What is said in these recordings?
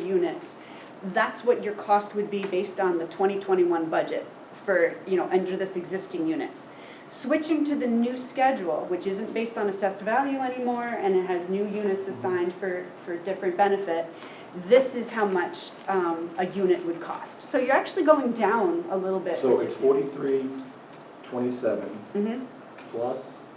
students, that's what your cost would be based on the 2021 budget for, you know, under this existing units. Switching to the new schedule, which isn't based on assessed value anymore, and it has new units assigned for, for different benefit, this is how much um, a unit would cost. So you're actually going down a little bit. So it's forty-three twenty-seven Mhm. plus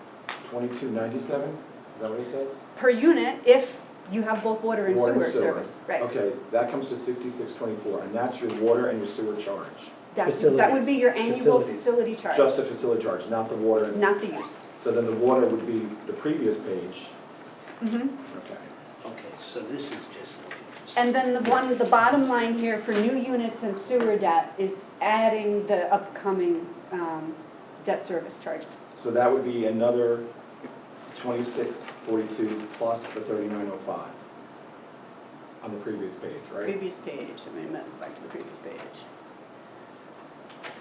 twenty-two ninety-seven, is that what he says? per unit if you have both water and Water sewer and service. Right, Okay, that comes to sixty-six twenty-four, and that's your water and your sewer charge, that, that would Facilities. be your annual Facilities. facility charge, just the facility charge, not the water. and- not the use. So then the water would be the previous page, Mhm. okay. Okay, so this is just looking for. And then the one, the bottom line here for new units and sewer debt is adding the upcoming um, debt service charges. So that would be another twenty-six forty-two plus the thirty-nine oh five on the previous page, right? Previous page, I mean, let's go back to the previous page.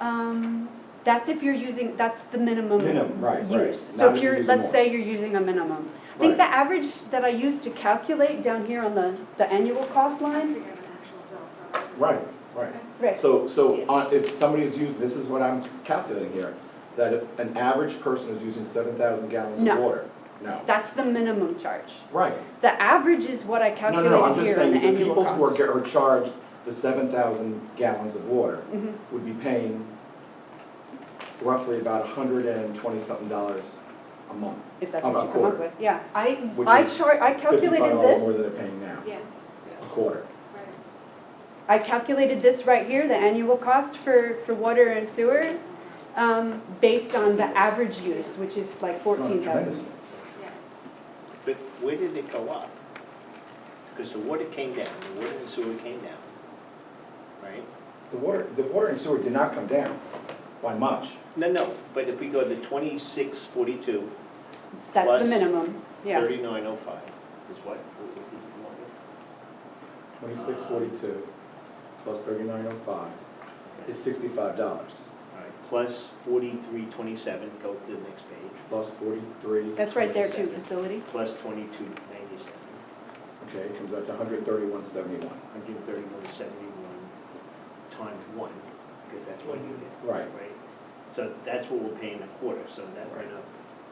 Um, That's if you're using, that's the minimum. Minimum, right, right. use. Not So if you're, using let's more. say you're using a minimum. I think the Right. average that I used to calculate down here on the, the annual cost line, Figure out an actual bill for us. Right, right. right, So, so on- if somebody's using, this is what I'm calculating here, that if an average person is using seven thousand gallons of No. water. No. that's the minimum charge. Right. The average is what I No, no, no, I'm calculated just here on saying, the the annual people who are, cost. get- are charged the seven thousand gallons of water Mhm. would be paying roughly about hundred and twenty-something dollars a month, If that's About what you come up quarter. with, yeah. I, Which I is char, I fifty-five calculated dollars more this. than they're paying now, Yes, a quarter. right. I calculated this right here, the annual cost for, for water and sewer, um, based on the average use, which is like It's not fourteen tremendous. thousand. Yeah. But where did it go up? Because the water came down, the water and sewer came down, right? The water, the water and sewer did not come down by much. No, no, but if we go to twenty-six forty-two, That's the Plus minimum, yeah. thirty-nine oh five is what? Twenty-six forty-two plus thirty-nine oh five is sixty-five dollars, All right, Plus forty-three twenty-seven, go to the next page, plus forty-three. That's right there too, facility. plus twenty-two ninety-seven, Okay, it comes out to hundred thirty-one seventy-one. hundred thirty-one seventy-one times one, because that's what you get. Right, Right, so that's what we're paying a quarter, so that went up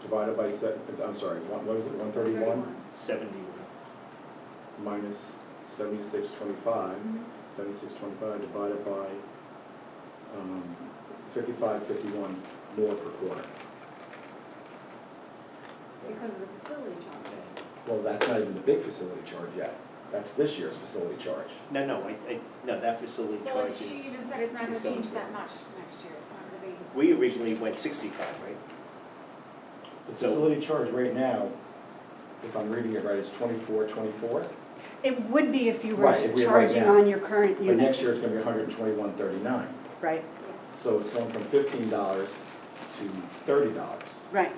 divided by se, I'm sorry, one, what is it, one thirty-one seventy-one. minus seventy-six twenty-five? Mm-hmm. Seventy-six twenty-five divided by, um, fifty-five fifty-one more per quarter. Because of the facility charges. Well, that's not even the big facility charge yet. That's this year's facility charge. No, no, I, I, no, that facility Well, charges, it's- she even said it's not gonna change that much next year, it's not gonna be. we originally went sixty-five, right? The So- facility charge right now, if I'm reading it right, is twenty-four twenty-four? It would be if you were Right, if we were right charging now. on your current But unit, next year, it's gonna be hundred and twenty-one thirty-nine. right, So it's going from fifteen dollars to thirty dollars right.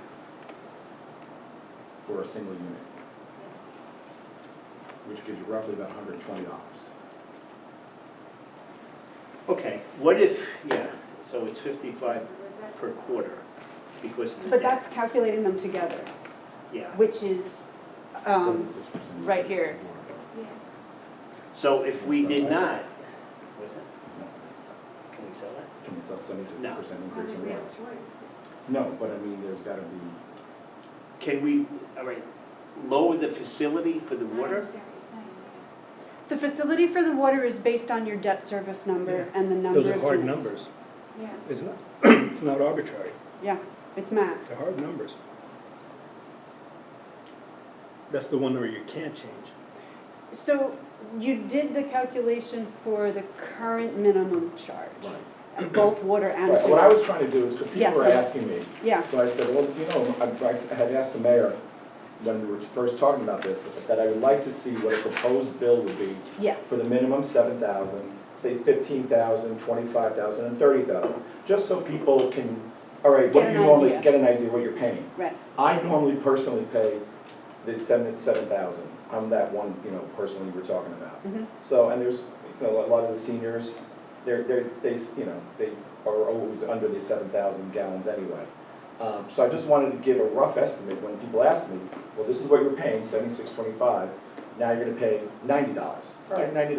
for a single unit. Which gives you roughly about hundred and twenty dollars. Okay, what if, yeah, so it's fifty-five But per quarter because of the But debt. that's calculating them together, Yeah, which is, um, right here. so if we did Somewhere. not, was it, can we sell that? Can you sell seventy-six percent I don't increase think in we water? have a choice. No, but I mean, there's gotta be, Can we, all right, lower the facility for the I water? understand what you're saying. the facility for the water is based on your debt service number and the number of Those are hard units. numbers. Yeah. It's not, it's not arbitrary. Yeah, it's math. They're hard numbers. That's the one where you can't change. So you did the calculation for the current minimum charge, right. both water and Right, what I sewer? was trying to do is, because people Yeah. were asking me, Yeah, So I said, well, you know, I I had asked the mayor when we were first talking about this, that I would like to see what a proposed bill would be yeah, for the minimum seven thousand, say fifteen thousand, twenty-five thousand, and thirty thousand, just so people can, all right, what Get do you an normally, idea. get an idea what you're paying. right. I normally personally pay the seven, seven thousand, I'm that one, you know, personally we're talking about. Mhm. So, and there's, you know, a lot of the seniors, they're, they're, they, s- you know, they are always under the seven thousand gallons anyway. Um, so I just wanted to give a rough estimate when people ask me, well, this is what you're paying, seventy-six twenty-five, now you're gonna pay ninety dollars. All right, ninety